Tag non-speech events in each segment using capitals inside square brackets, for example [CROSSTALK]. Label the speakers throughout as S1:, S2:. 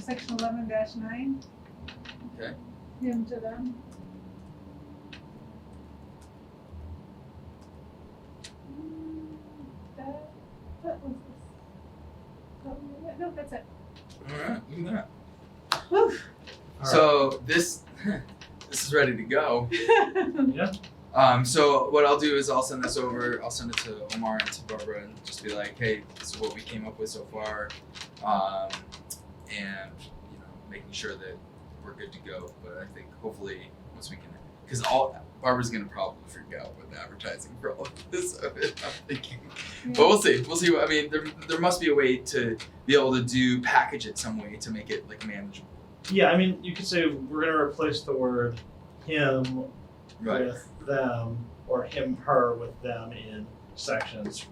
S1: section eleven dash nine,
S2: okay?
S1: him to them. Mm, That, that was this. that- No, that's it.
S2: Alright, look at
S1: Woo.
S2: that. So this, [LAUGHS] this is ready to go. Um, so what I'll do is I'll send this over, I'll send it to Omar and to Barbara and just be like, hey, this is what we came up with so far. Um, and, you know, making sure that we're good to go, but I think hopefully once we can, cause all, Barbara's gonna probably freak out with advertising for all of this, [LAUGHS] I'm thinking. But we'll see, we'll see, what- I mean, there, there must be a way to be able to do, package it some way to make it like manageable.
S3: Yeah, I mean, you could say we're gonna replace the word him with them or him her with them in sections,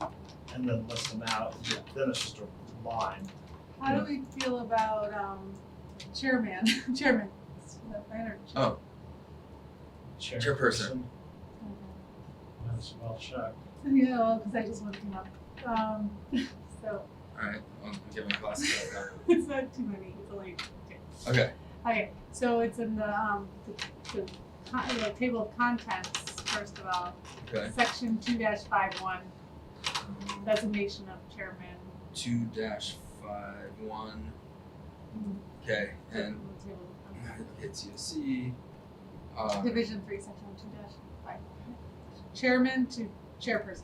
S3: and then list them out.
S2: Yeah.
S3: Then it's just a line.
S1: How do we feel about um chairman, [LAUGHS] chairman, Is that better?
S2: Oh, Chairperson.
S3: That's well checked.
S1: [LAUGHS] Yeah, well, cause I just looked him up, um, [LAUGHS] so
S2: alright, um, I'm giving classes right
S1: it's not too many, it's only two.
S2: now. Okay,
S1: Okay, so it's in the, um, the, the, con- the table of contents, first of all.
S2: okay.
S1: Section two dash five one, designation of chairman.
S2: two dash five one. Okay, and [LAUGHS]
S1: Table of contents.
S2: it's you see. Uh,
S1: Division three, section two dash five one. Chairman to chairperson.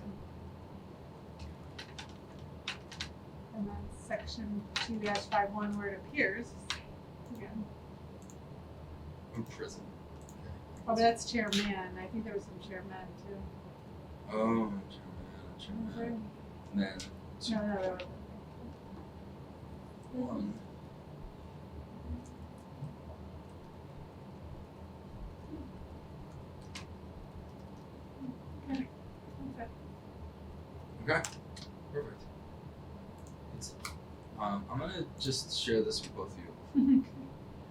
S1: And then section two dash five one where it appears, again,
S2: in prison.
S1: oh, but that's chairman, I think there was some chairman too.
S2: Oh, German, German. And then two,
S1: No, no, no, no.
S2: one.
S1: Okay.
S2: Okay, perfect. It's, um, I'm gonna just share this with both of you,
S1: Mm-hmm.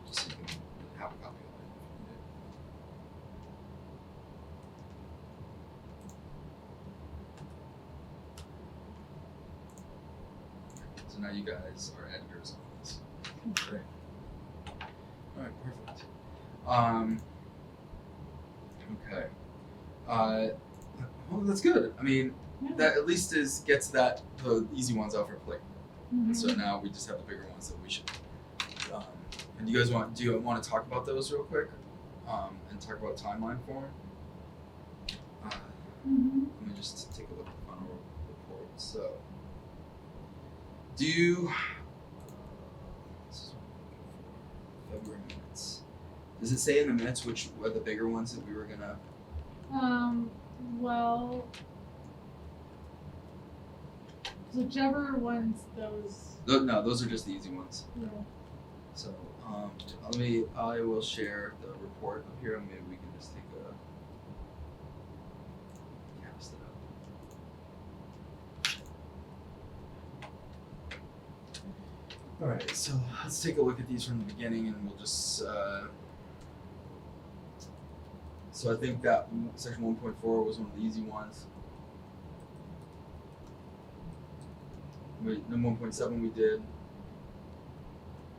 S2: just so you can have a copy of it. if you need it. So now you guys are editors on this. Great. Alright, perfect. Um, okay. Uh, well, that's good. I mean,
S1: Yeah.
S2: that at least is gets that the easy ones off our plate.
S1: Mhm.
S2: So now we just have the bigger ones that we should. Um, and you guys want do you want to talk about those real quick, um, and talk about timeline for 'em? Uh,
S1: Mhm.
S2: let me just take a look at the final report. So, do you? This is what I'm looking for. February minutes. Does it say in the minutes which were the bigger ones that we were gonna?
S1: Um, well, whichever ones those,
S2: Tho- No, those are just the easy ones.
S1: you
S2: So, um, let me, I will share the report up here and maybe we can just take a cast it up. Alright, so let's take a look at these from the beginning and we'll just, uh, so I think that m- section one point four was one of the easy ones. Wait, no, one point seven we did.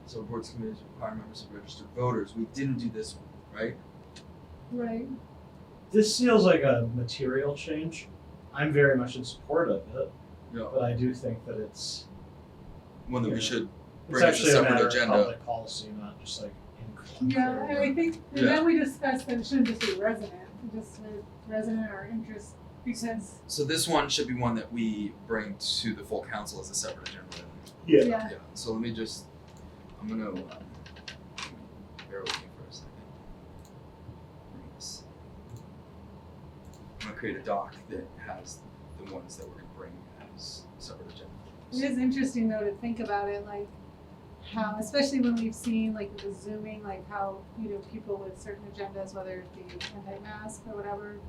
S2: So boards committees require members of registered voters. We didn't do this one, right?
S1: right?
S3: This feels like a material change. I'm very much in support of it,
S2: No.
S3: but I do think that it's
S2: One that we
S3: Yeah.
S2: should
S3: it's
S2: Right, it's a
S3: actually a
S2: separate
S3: matter
S2: agenda.
S3: of public policy, not just like in.
S1: Yeah, and I think, and
S2: Yeah.
S1: then we discussed that it shouldn't just be resident, it just re- resident or interest, because,
S2: so this one should be one that we bring to the full council as a separate agenda. item.
S3: Yeah.
S1: yeah,
S2: Yeah. So let me just I'm gonna um, bear with me for a second. Let me see. I'm gonna create a doc that has the ones that we're gonna bring as separate agenda.
S1: It is interesting though to think about it, like how, especially when we've seen like the zooming, like how, you know, people with certain agendas, whether it be anti-mask or whatever,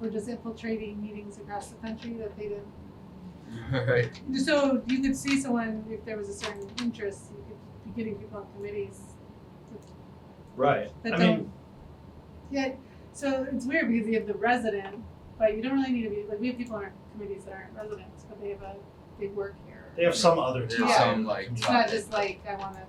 S1: were just infiltrating meetings across the country that they didn't.
S2: [LAUGHS] right.
S1: So you could see someone, if there was a certain interest, you could be getting people on committees.
S3: Right.
S1: But
S3: I
S1: don't-
S3: mean,
S1: Yeah, so it's weird because you have the resident, but you don't really need to be, like, we have people on our committees that aren't residents, but they have a, they work here.
S3: they have some other.
S2: They
S1: have
S3: tie
S2: some,
S3: in the
S2: like,
S3: community.
S1: It's not just like, I wanna